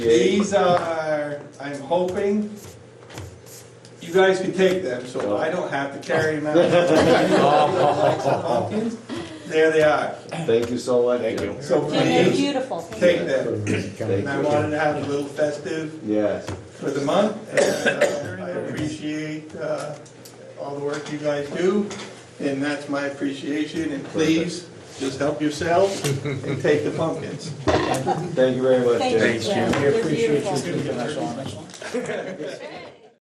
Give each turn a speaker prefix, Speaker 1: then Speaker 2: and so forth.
Speaker 1: These are, I'm hoping, you guys can take them, so I don't have to carry them out. Pumpkins, There they are,
Speaker 2: Thank you so much.
Speaker 3: Thank you.
Speaker 1: so
Speaker 4: And they're
Speaker 1: please,
Speaker 4: beautiful.
Speaker 1: take them.
Speaker 2: Thank
Speaker 1: And I
Speaker 2: you.
Speaker 1: wanted to have a little festive
Speaker 2: Yes,
Speaker 1: for the month, and uh, I appreciate uh, all the work you guys do, and that's my appreciation, and please, just help yourselves and take the pumpkins.
Speaker 2: thank you very much, Jim.
Speaker 4: Thank you, Jim. They're
Speaker 5: appreciate you
Speaker 4: beautiful.
Speaker 5: giving us on this one.
Speaker 4: Thank